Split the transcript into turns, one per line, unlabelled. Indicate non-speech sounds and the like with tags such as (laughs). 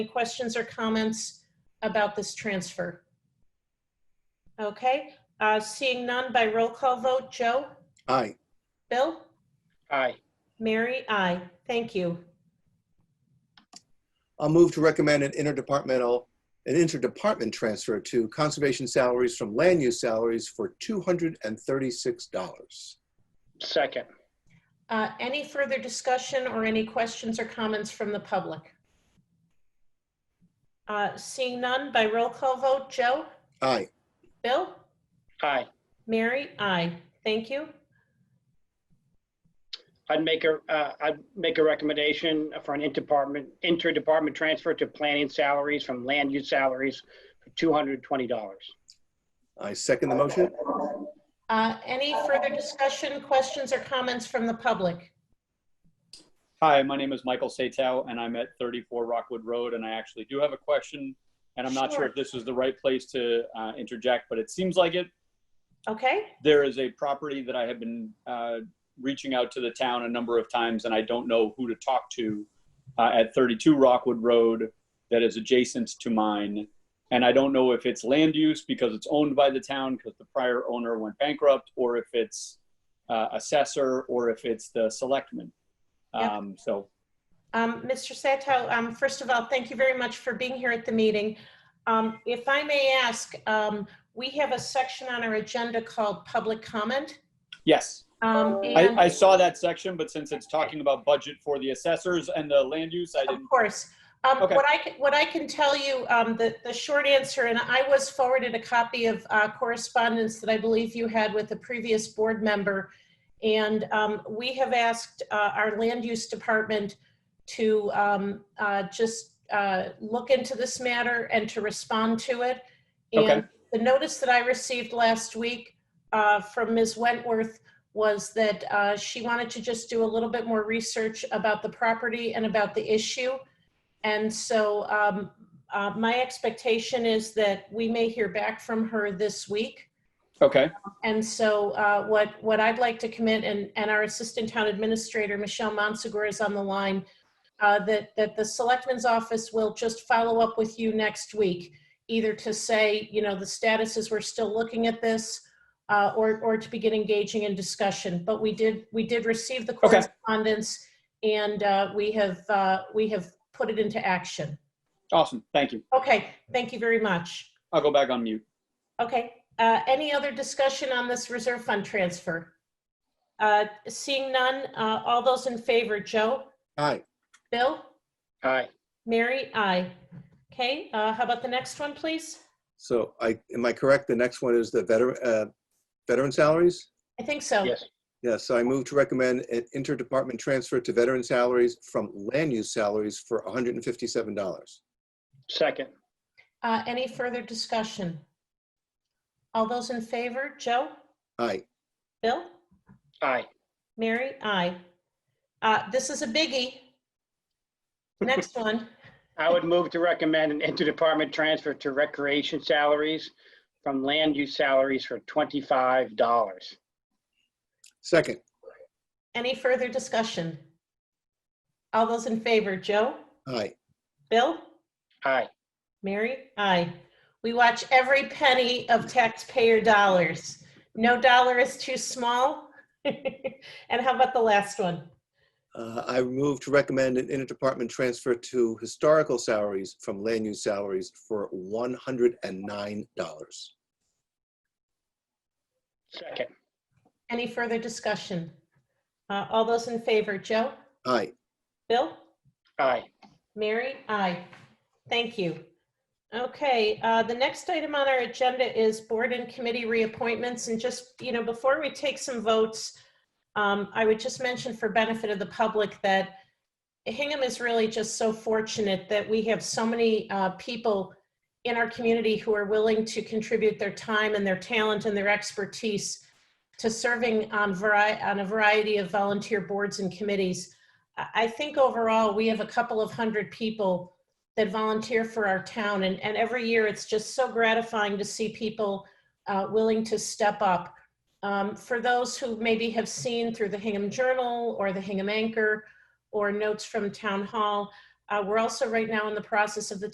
Any questions or comments about this transfer? Okay, uh, seeing none by roll call vote, Joe?
Aye.
Bill?
Aye.
Mary? Aye. Thank you.
I'll move to recommend an interdepartmental, an interdepartment transfer to conservation salaries from land use salaries for $236.
Second.
Uh, Any further discussion or any questions or comments from the public? Uh, Seeing none by roll call vote, Joe?
Aye.
Bill?
Aye.
Mary? Aye. Thank you.
I'd make a, uh, I'd make a recommendation for an interdepartment, interdepartment transfer to planning salaries from land use salaries for $220.
I second the motion.
Uh, Any further discussion, questions, or comments from the public?
Hi, my name is Michael Satow, and I'm at 34 Rockwood Road, and I actually do have a question. And I'm not sure
Sure.
if this is the right place to uh, interject, but it seems like it.
Okay?
There is a property that I have been uh, reaching out to the town a number of times, and I don't know who to talk to uh, at 32 Rockwood Road that is adjacent to mine. And I don't know if it's land use because it's owned by the town because the prior owner went bankrupt, or if it's uh, assessor, or if it's the selectman.
Yep.
Um, so
Um, Mr. Sato, um, first of all, thank you very much for being here at the meeting. Um, If I may ask, um, we have a section on our agenda called public comment.
yes.
Um, and-
Oh. I, I saw that section, but since it's talking about budget for the assessors and the land use, I
Of
didn't,
course. Um,
Okay.
What I, can- what I can tell you, um, the, the short answer, and I was forwarded a copy of uh, correspondence that I believe you had with a previous board member. And um, we have asked uh, our land use department to um, uh, just uh, look into this matter and to respond to it. And
Okay.
the notice that I received last week uh, from Ms. Wentworth was that uh, she wanted to just do a little bit more research about the property and about the issue. And so um, uh, my expectation is that we may hear back from her this week.
okay,
And so uh, what, what I'd like to commit, and, and our Assistant Town Administrator, Michelle Monsegur, is on the line, uh, that, that the Selectman's Office will just follow up with you next week, either to say, you know, the status is we're still looking at this, uh, or, or to begin engaging in discussion. But we did, we did receive the
Okay.
correspondence, and uh, we have, uh, we have put it into action.
awesome, thank you.
Okay, thank you very much.
I'll go back on mute.
Okay, uh, any other discussion on this reserve fund transfer? Uh, Seeing none, uh, all those in favor, Joe?
Aye.
Bill?
Aye.
Mary? Aye. Okay, uh, how about the next one, please?
So I, am I correct? The next one is the veteran, uh, veteran salaries?
I think so.
Yes.
Yes, so I move to recommend an interdepartment transfer to veteran salaries from land use salaries for $157.
Second.
Uh, Any further discussion? All those in favor, Joe?
Aye.
Bill?
Aye.
Mary? Aye. Uh, This is a biggie. Next one.
I would move to recommend an interdepartment transfer to recreation salaries from land use salaries for $25.
Second.
Any further discussion? All those in favor, Joe?
Aye.
Bill?
Aye.
Mary? Aye. We watch every penny of taxpayer dollars. No dollar is too small. (laughs) And how about the last one?
Uh, I move to recommend an interdepartment transfer to historical salaries from land use salaries for $109.
Second.
Any further discussion? Uh, All those in favor, Joe?
Aye.
Bill?
Aye.
Mary? Aye. Thank you. Okay, uh, the next item on our agenda is board and committee reappointments. And just, you know, before we take some votes, um, I would just mention for benefit of the public that Hingham is really just so fortunate that we have so many uh, people in our community who are willing to contribute their time and their talent and their expertise to serving on vari, on a variety of volunteer boards and committees. I I think overall, we have a couple of hundred people that volunteer for our town, and, and every year, it's just so gratifying to see people uh, willing to step up. Um, For those who maybe have seen through the Hingham Journal or the Hingham Anchor or notes from Town Hall, Uh, We're also right now in the process of the